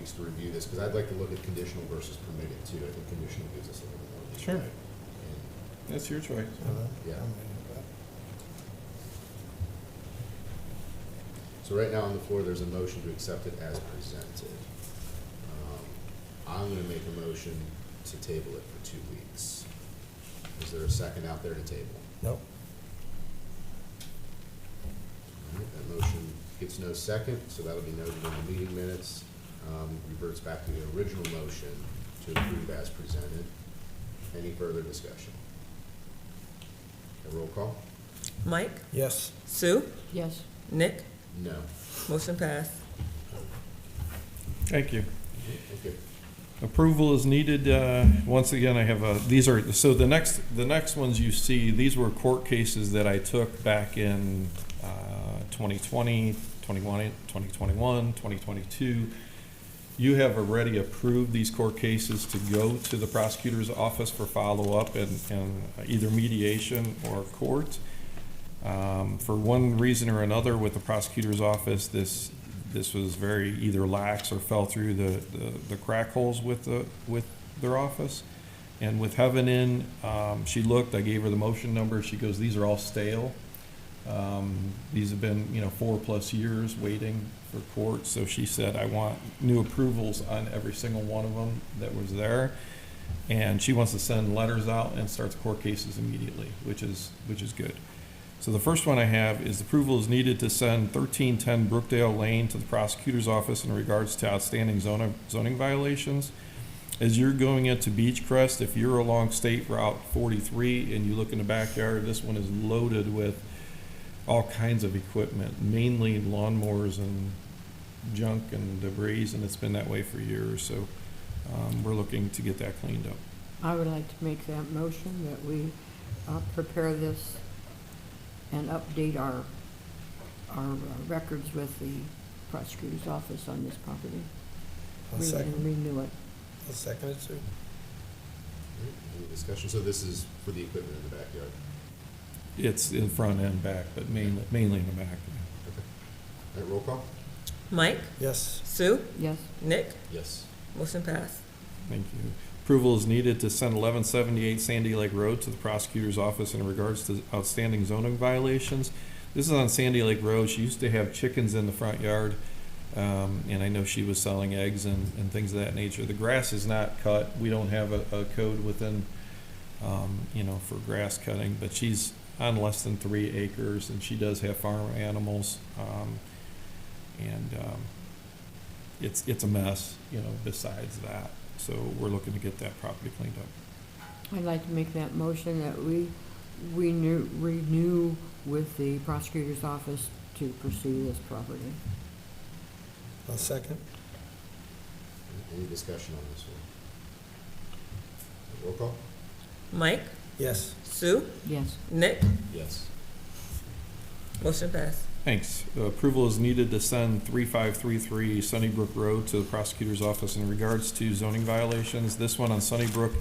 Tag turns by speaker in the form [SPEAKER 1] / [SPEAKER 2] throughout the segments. [SPEAKER 1] chance to review this, because I'd like to look at conditional versus permitted too. I think conditional gives us a little more.
[SPEAKER 2] Sure.
[SPEAKER 1] leeway.
[SPEAKER 2] That's your choice.
[SPEAKER 1] Yeah. And So right now on the floor, there's a motion to accept it as presented. Um, I'm gonna make a motion to table it for two weeks. Is there a second out there to table?
[SPEAKER 3] Nope.
[SPEAKER 1] All right, That motion gets no second, so that'll be noted in the meeting minutes. Um, Reverts back to the original motion to approve as presented. Any further discussion? A roll call?
[SPEAKER 4] Mike,
[SPEAKER 3] Yes.
[SPEAKER 4] Sue,
[SPEAKER 5] Yes.
[SPEAKER 4] Nick,
[SPEAKER 1] No.
[SPEAKER 4] motion passed.
[SPEAKER 2] Thank you.
[SPEAKER 1] Okay.
[SPEAKER 2] Approval is needed. uh, Once again, I have, uh, these are, so the next, the next ones you see, these were court cases that I took back in uh, 2020, 21, 2021, 2022. You have already approved these court cases to go to the prosecutor's office for follow-up and and either mediation or court. Um, For one reason or another with the prosecutor's office, this, this was very either lax or fell through the, the- the crack holes with the, with their office. And with Heaven in, um, she looked, I gave her the motion number, she goes, these are all stale. Um, These have been, you know, four-plus years waiting for court, so she said, I want new approvals on every single one of them that was there. And she wants to send letters out and starts court cases immediately, which is, which is good. So the first one I have is approval is needed to send thirteen ten Brookdale Lane to the prosecutor's office in regards to outstanding zoning, zoning violations. As you're going into Beach Crest, if you're along State Route forty-three and you look in the backyard, this one is loaded with all kinds of equipment, mainly lawnmowers and junk and debris, and it's been that way for years, so, um, we're looking to get that cleaned up.
[SPEAKER 5] I would like to make that motion that we uh, prepare this and update our, our uh, records with the prosecutor's office on this property.
[SPEAKER 3] I'll
[SPEAKER 5] Re- And
[SPEAKER 3] second,
[SPEAKER 5] renew it.
[SPEAKER 3] I'll second it, Sue.
[SPEAKER 1] All right, Any discussion? So this is for the equipment in the backyard.
[SPEAKER 2] It's in front and back, but mainly, mainly in the back.
[SPEAKER 1] All right, roll call?
[SPEAKER 4] Mike,
[SPEAKER 3] Yes.
[SPEAKER 4] Sue,
[SPEAKER 5] Yes,
[SPEAKER 4] Nick,
[SPEAKER 1] Yes.
[SPEAKER 4] motion passed.
[SPEAKER 2] Thank you. Approval is needed to send eleven seventy-eight Sandy Lake Road to the prosecutor's office in regards to outstanding zoning violations. This is on Sandy Lake Road. She used to have chickens in the front yard. Um, and I know she was selling eggs and, and things of that nature. The grass is not cut. We don't have a, a code within, um, you know, for grass cutting, but she's on less than three acres and she does have farm animals. Um, and, um, it's, it's a mess, you know, besides that. So we're looking to get that property cleaned up.
[SPEAKER 5] I'd like to make that motion that we, we renew, renew with the prosecutor's office to pursue this property.
[SPEAKER 3] I'll second.
[SPEAKER 1] Any discussion on this one? Roll call?
[SPEAKER 4] Mike,
[SPEAKER 3] Yes.
[SPEAKER 4] Sue,
[SPEAKER 5] Yes,
[SPEAKER 4] Nick,
[SPEAKER 1] Yes.
[SPEAKER 4] motion passed.
[SPEAKER 2] Thanks. Approval is needed to send 3533 Sunnybrook Road to the prosecutor's office in regards to zoning violations. This one on Sunnybrook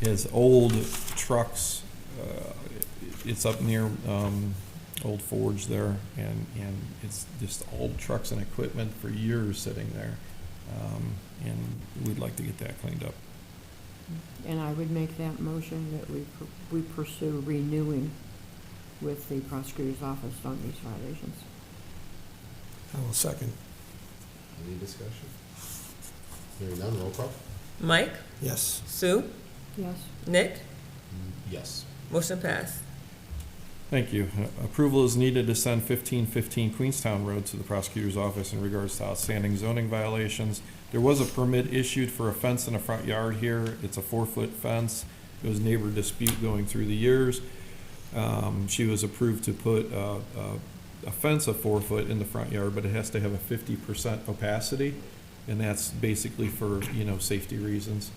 [SPEAKER 2] is old trucks. uh, It's up near um, Old Forge there, and, and it's just old trucks and equipment for years sitting there. Um, And we'd like to get that cleaned up.
[SPEAKER 5] and I would make that motion that we, pur- we pursue renewing with the prosecutor's office on these violations.
[SPEAKER 3] I will second.
[SPEAKER 1] Any discussion? Hearing none, roll call?
[SPEAKER 4] Mike,
[SPEAKER 3] Yes.
[SPEAKER 4] Sue,
[SPEAKER 5] Yes,
[SPEAKER 4] Nick,
[SPEAKER 1] Mm, Yes.
[SPEAKER 4] motion passed.
[SPEAKER 2] Thank you. Approval is needed to send fifteen fifteen Queenstown Road to the prosecutor's office in regards to outstanding zoning violations. There was a permit issued for a fence in a front yard here. It's a four-foot fence. It was neighbor dispute going through the years. Um, she was approved to put, uh, uh, a fence of four foot in the front yard, but it has to have a fifty percent opacity. And that's basically for, you know, safety reasons.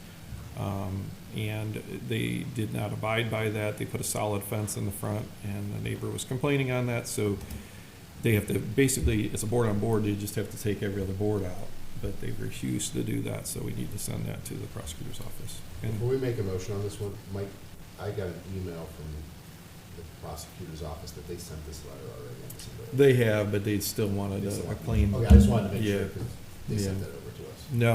[SPEAKER 2] Um, and they did not abide by that. They put a solid fence in the front, and the neighbor was complaining on that, so they have to, basically, it's a board on board, they just have to take every other board out. But they refused to do that, so we need to send that to the prosecutor's office.
[SPEAKER 1] Before
[SPEAKER 2] And
[SPEAKER 1] we make a motion on this one, Mike, I got an email from the prosecutor's office that they sent this letter already. on December
[SPEAKER 2] they have, but they still wanted uh, a a
[SPEAKER 1] eighth.
[SPEAKER 2] clean.
[SPEAKER 1] Okay, I just wanted to make sure,
[SPEAKER 2] Yeah.
[SPEAKER 1] because they sent
[SPEAKER 2] Yeah.
[SPEAKER 1] that over to us.
[SPEAKER 2] No,